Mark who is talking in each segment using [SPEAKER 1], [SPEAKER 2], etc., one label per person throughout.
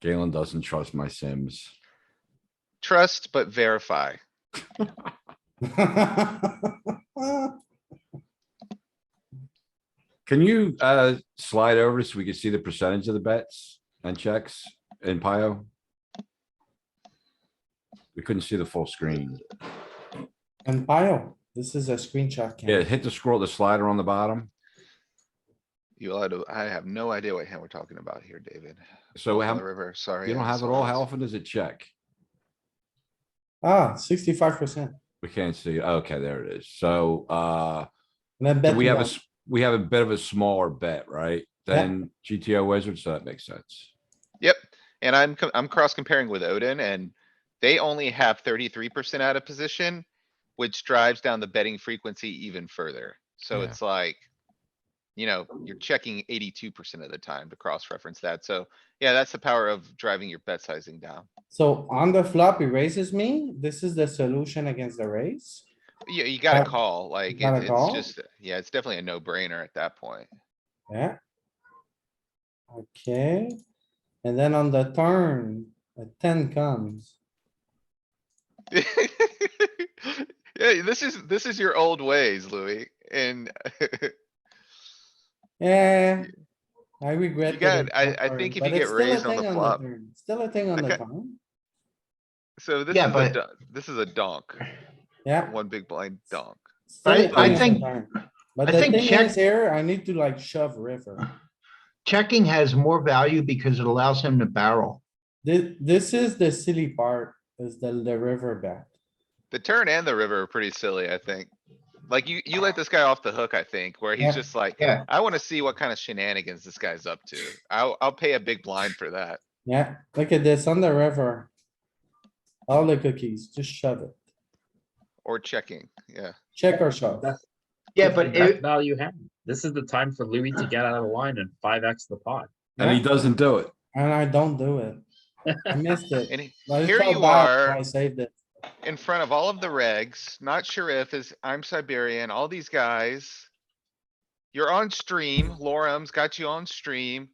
[SPEAKER 1] Galen doesn't trust my Sims.
[SPEAKER 2] Trust but verify.
[SPEAKER 1] Can you, uh, slide over so we can see the percentage of the bets and checks in Pio? We couldn't see the full screen.
[SPEAKER 3] And pile, this is a screenshot. Ken.
[SPEAKER 1] Yeah, hit the scroll, the slider on the bottom.
[SPEAKER 2] You allowed to, I have no idea what hand we're talking about here, David.
[SPEAKER 1] So
[SPEAKER 2] On
[SPEAKER 1] how,
[SPEAKER 2] the river, sorry.
[SPEAKER 1] you
[SPEAKER 2] I
[SPEAKER 1] don't have it
[SPEAKER 2] saw
[SPEAKER 1] all?
[SPEAKER 2] this.
[SPEAKER 1] How often does it check?
[SPEAKER 3] Ah, sixty-five percent.
[SPEAKER 1] We can't see. Okay, there it is. So, uh,
[SPEAKER 3] And I bet.
[SPEAKER 1] we have a,
[SPEAKER 3] one.
[SPEAKER 1] s- we have a bit of a smaller bet, right?
[SPEAKER 3] Yeah.
[SPEAKER 1] Than GTO wizard, so that makes sense.
[SPEAKER 2] Yep, and I'm, co- I'm cross comparing with Odin and they only have thirty-three percent out of position, which drives down the betting frequency even further. So
[SPEAKER 1] Yeah.
[SPEAKER 2] it's like, you know, you're checking eighty-two percent of the time to cross-reference that. So, yeah, that's the power of driving your bet sizing down.
[SPEAKER 3] So on the flop, he raises me. This is the solution against the raise.
[SPEAKER 2] You, you gotta
[SPEAKER 3] Uh,
[SPEAKER 2] call, like,
[SPEAKER 3] gotta
[SPEAKER 2] it- it's
[SPEAKER 3] call?
[SPEAKER 2] just, yeah, it's definitely a no-brainer at that point.
[SPEAKER 3] Yeah. Okay, and then on the turn, a ten comes.
[SPEAKER 2] Yeah, this is, this is your old ways, Louis, and uh,
[SPEAKER 3] Yeah, Eh, I regret.
[SPEAKER 2] You got-
[SPEAKER 3] that it's
[SPEAKER 2] I-
[SPEAKER 3] not
[SPEAKER 2] I
[SPEAKER 3] turn,
[SPEAKER 2] think if
[SPEAKER 3] but
[SPEAKER 2] you get
[SPEAKER 3] it's still a
[SPEAKER 2] raised on the
[SPEAKER 3] thing
[SPEAKER 2] flop-
[SPEAKER 3] turn. Still a thing on the
[SPEAKER 2] Okay.
[SPEAKER 3] turn.
[SPEAKER 2] so this
[SPEAKER 4] Yeah,
[SPEAKER 2] is a,
[SPEAKER 4] but-
[SPEAKER 2] do- this is a donk.
[SPEAKER 3] Yeah.
[SPEAKER 2] One big blind donk.
[SPEAKER 3] still a
[SPEAKER 4] I- I
[SPEAKER 3] thing on the
[SPEAKER 4] think-
[SPEAKER 3] turn. But
[SPEAKER 4] I
[SPEAKER 3] the
[SPEAKER 4] think
[SPEAKER 3] thing
[SPEAKER 4] check-
[SPEAKER 3] is here, I need to like shove river.
[SPEAKER 4] Checking has more value because it allows him to barrel.
[SPEAKER 3] This, this is the silly part, is the, the river bet.
[SPEAKER 2] The turn and the river are pretty silly, I think. Like you, you let this guy off the hook, I think, where
[SPEAKER 4] Yeah,
[SPEAKER 2] he's just like,
[SPEAKER 4] yeah.
[SPEAKER 2] I wanna see what kind of shenanigans this guy's up to. I'll, I'll pay a big blind for that.
[SPEAKER 3] Yeah, look at this on the river. All the cookies, just shove it.
[SPEAKER 2] Or checking, yeah.
[SPEAKER 3] Check or shove.
[SPEAKER 5] That's-
[SPEAKER 4] Yeah, but
[SPEAKER 5] That's
[SPEAKER 4] it,
[SPEAKER 5] now you have. This is the time for Louis to get out of the line and five X the pot.
[SPEAKER 1] And he
[SPEAKER 3] Yeah.
[SPEAKER 1] doesn't do it.
[SPEAKER 3] And I don't do it. I missed it.
[SPEAKER 2] And he-
[SPEAKER 3] But it
[SPEAKER 2] here
[SPEAKER 3] felt
[SPEAKER 2] you
[SPEAKER 3] bad, so
[SPEAKER 2] are.
[SPEAKER 3] I saved it.
[SPEAKER 2] in front of all of the regs, not sure if is, I'm Siberian, all these guys. You're on stream, Lorem's got you on stream,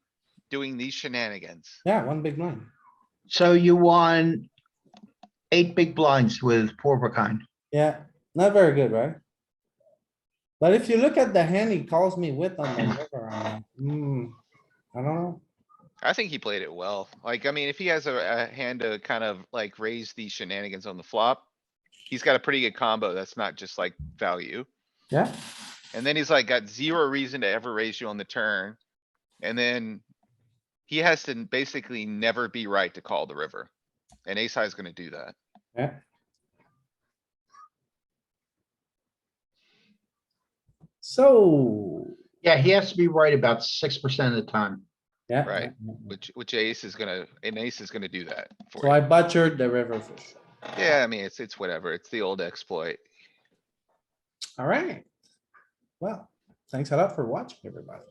[SPEAKER 2] doing these shenanigans.
[SPEAKER 3] Yeah, one big line.
[SPEAKER 4] so you won eight big blinds with four of a kind.
[SPEAKER 3] Yeah, not very good, right? But if you look at the hand he calls me with on the river, I'm like, hmm, I don't know.
[SPEAKER 2] I think he played it well. Like, I mean, if he has a, a hand to kind of like raise the shenanigans on the flop. He's got a pretty good combo. That's not just like value.
[SPEAKER 3] Yeah,
[SPEAKER 2] And then he's like got zero reason to ever raise you on the turn. And then. He has to basically never be right to call the river. And ace high is gonna do that.
[SPEAKER 3] yeah. So,
[SPEAKER 4] Yeah, he has to be right about six percent of the time.
[SPEAKER 3] yeah.
[SPEAKER 2] Right.
[SPEAKER 3] yeah, yeah.
[SPEAKER 2] Which, which ace is gonna, an ace is gonna do that for
[SPEAKER 3] So
[SPEAKER 2] you.
[SPEAKER 3] I butchered the river fish.
[SPEAKER 2] Yeah, I mean, it's, it's whatever. It's the old exploit.
[SPEAKER 3] Alright. Well, thanks a lot for watching, everybody.